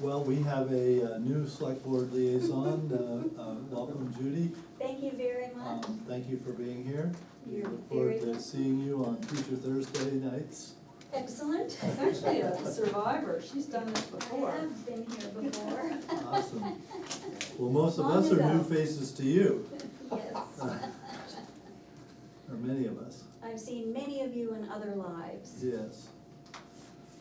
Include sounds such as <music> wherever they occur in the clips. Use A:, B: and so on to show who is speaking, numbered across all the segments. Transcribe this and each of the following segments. A: Well, we have a uh, new select board liaison, Uh, uh, welcome Judy,
B: Thank you very
A: um,
B: much.
A: thank you for being here. We
B: You're
A: Look
B: very
A: forward to seeing you on future Thursday nights.
B: excellent.
C: It's actually a survivor, she's done this
B: <laughs> I
C: before.
B: have been here before, <laughs>
A: Awesome. Well, most of
C: Long
A: us are new
C: ago.
A: faces to you,
B: yes.
A: or many of us,
B: I've seen many of you in other lives.
A: yes.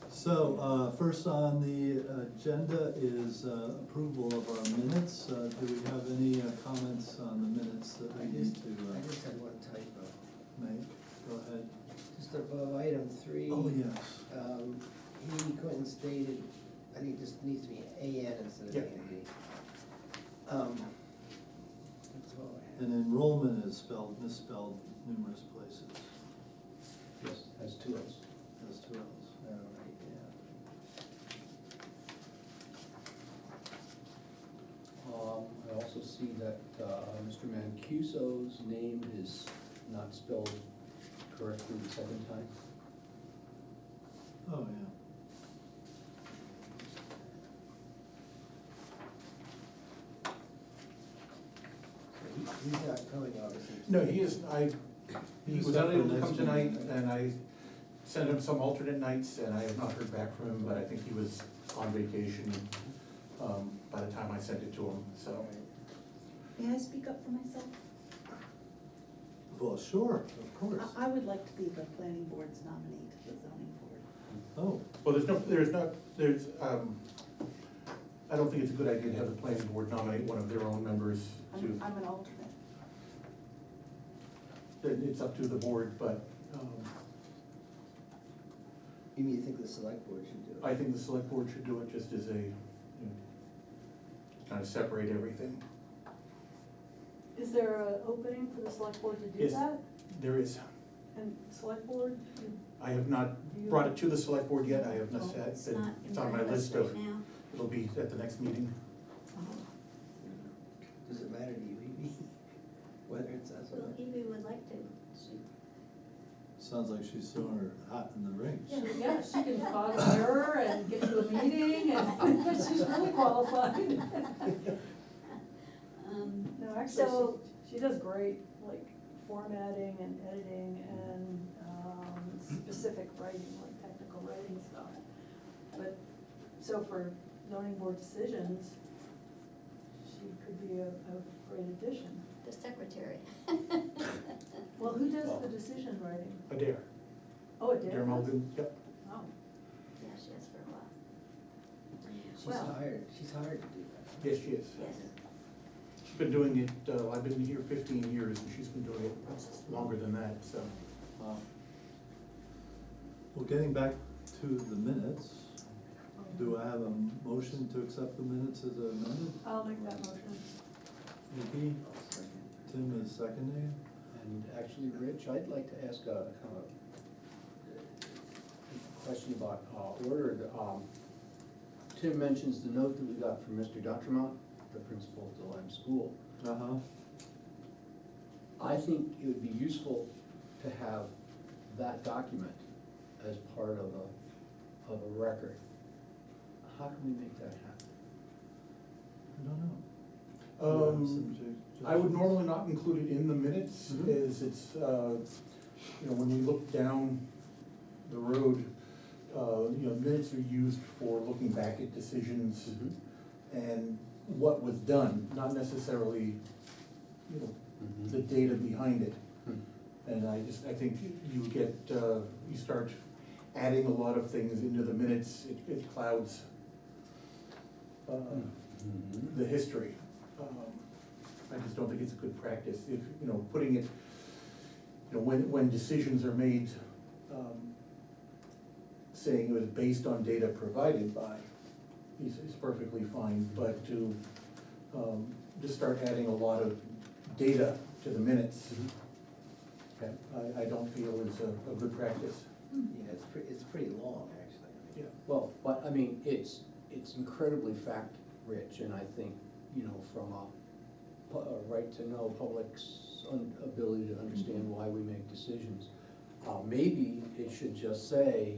A: So, uh, first on the agenda is uh, approval of our minutes. Uh, Do we have any uh, comments on the minutes that
D: I
A: we need
D: just,
A: to uh,
D: I just had one typo,
A: make? Go ahead.
D: uh, just above item three.
A: Oh, yes.
D: Um, he, Quentin stated, I think this needs to be A N instead of A
A: Yeah.
D: N D. Um, that's all I
A: And
D: have.
A: enrollment is spelled, misspelled numerous places,
E: Yes, has two L's.
A: as two L's.
D: All right, yeah.
E: Um, I also see that, uh, Mr. Mancuso's name is not spelled correctly the second time.
A: Oh, yeah.
D: So he, he's not coming, obviously.
F: No, he is, I, he
A: He's
F: was
A: up for
F: unable to
A: next
F: come tonight,
A: meeting.
F: and I sent him some alternate nights, and I have not heard back from him, but I think he was on vacation, um, by the time I sent it to him, so.
D: All right.
G: May I speak up for myself?
A: Well, sure, of course.
G: I, I would like to be the planning board's nominee to the zoning board.
A: Oh,
F: Well, there's no, there's not, there's, um, I don't think it's a good idea to have the planning board nominate one of their own members
G: I'm,
F: to,
G: I'm an alternate.
F: it- it's up to the board, but, um,
D: You mean you think the select board should do it?
F: I think the select board should do it just as a, you know, kind of separate everything.
C: Is there an opening for the select board to do
F: Yes.
C: that?
F: There is,
C: And select board, you-
F: I have not brought it to the select board yet, I have not said,
B: Oh, It's not in
F: it's on my
B: front of us
F: list of,
B: right now.
F: it'll be at the next meeting.
D: Does it matter to you, Amy? <laughs> Whether it's us or
B: Well,
D: not?
B: Evie would like to. She-
A: sounds like she's throwing her hat in the ring.
C: she- yeah, she can fog a mirror and get to a meeting, and <laughs> she's really qualified.
B: <laughs> um,
C: No,
B: So-
C: actually, she, she does great, like formatting and editing and, um, specific writing, like technical writing stuff. But, so for zoning board decisions, she could be a, a great addition.
B: The secretary. <laughs>
C: Well, who does
F: Well-
C: the decision writing?
F: Adair,
C: Oh, it did?
F: Adair Malden, yep.
C: Oh,
B: Yeah, she has for a while.
D: She's
B: Well-
D: hired, she's hired to do that.
F: Yes, she is.
B: Yes.
F: She's been doing it, uh, I've been here fifteen years, and she's been doing it longer than that, so.
A: Wow. Well, getting back to the minutes, do I have a motion to accept the minutes as amended?
G: Uh,
C: I'll make that motion.
A: Nikki,
D: I'll second.
A: Tim is seconding.
E: And actually, Rich, I'd like to ask a kind of a question about uh, order. Um, Tim mentions the note that we got from Mr. Dutramont, the principal of the Lime School.
A: Uh-huh.
E: I think it would be useful to have that document as part of a, of a record. How can we make that happen?
A: I don't know. Do you have some
F: Um,
A: suggestions?
F: I would normally not include it in the minutes,
A: Mhm.
F: is it's, uh, you know, when we look down the road, uh, you know, minutes are used for looking back at decisions and what was done, not necessarily, you know,
E: Mhm.
F: the data behind it.
E: Hmm.
F: And I just, I think you get, uh, you start adding a lot of things into the minutes, it, it clouds uh,
E: Mhm.
F: the history. Um, I just don't think it's a good practice, if, you know, putting it, you know, when, when decisions are made, um, saying it was based on data provided by, is, is perfectly fine, but to, um, just start adding a lot of data to the minutes,
E: Okay.
F: I, I don't feel is a, a good practice.
D: Yeah, it's pretty, it's pretty long, actually. I mean,
F: Yeah.
E: Well, but, I mean, it's, it's incredibly fact-rich, and I think, you know, from a pu- a right-to-know public's un- ability to understand why we make decisions, uh, maybe it should just say,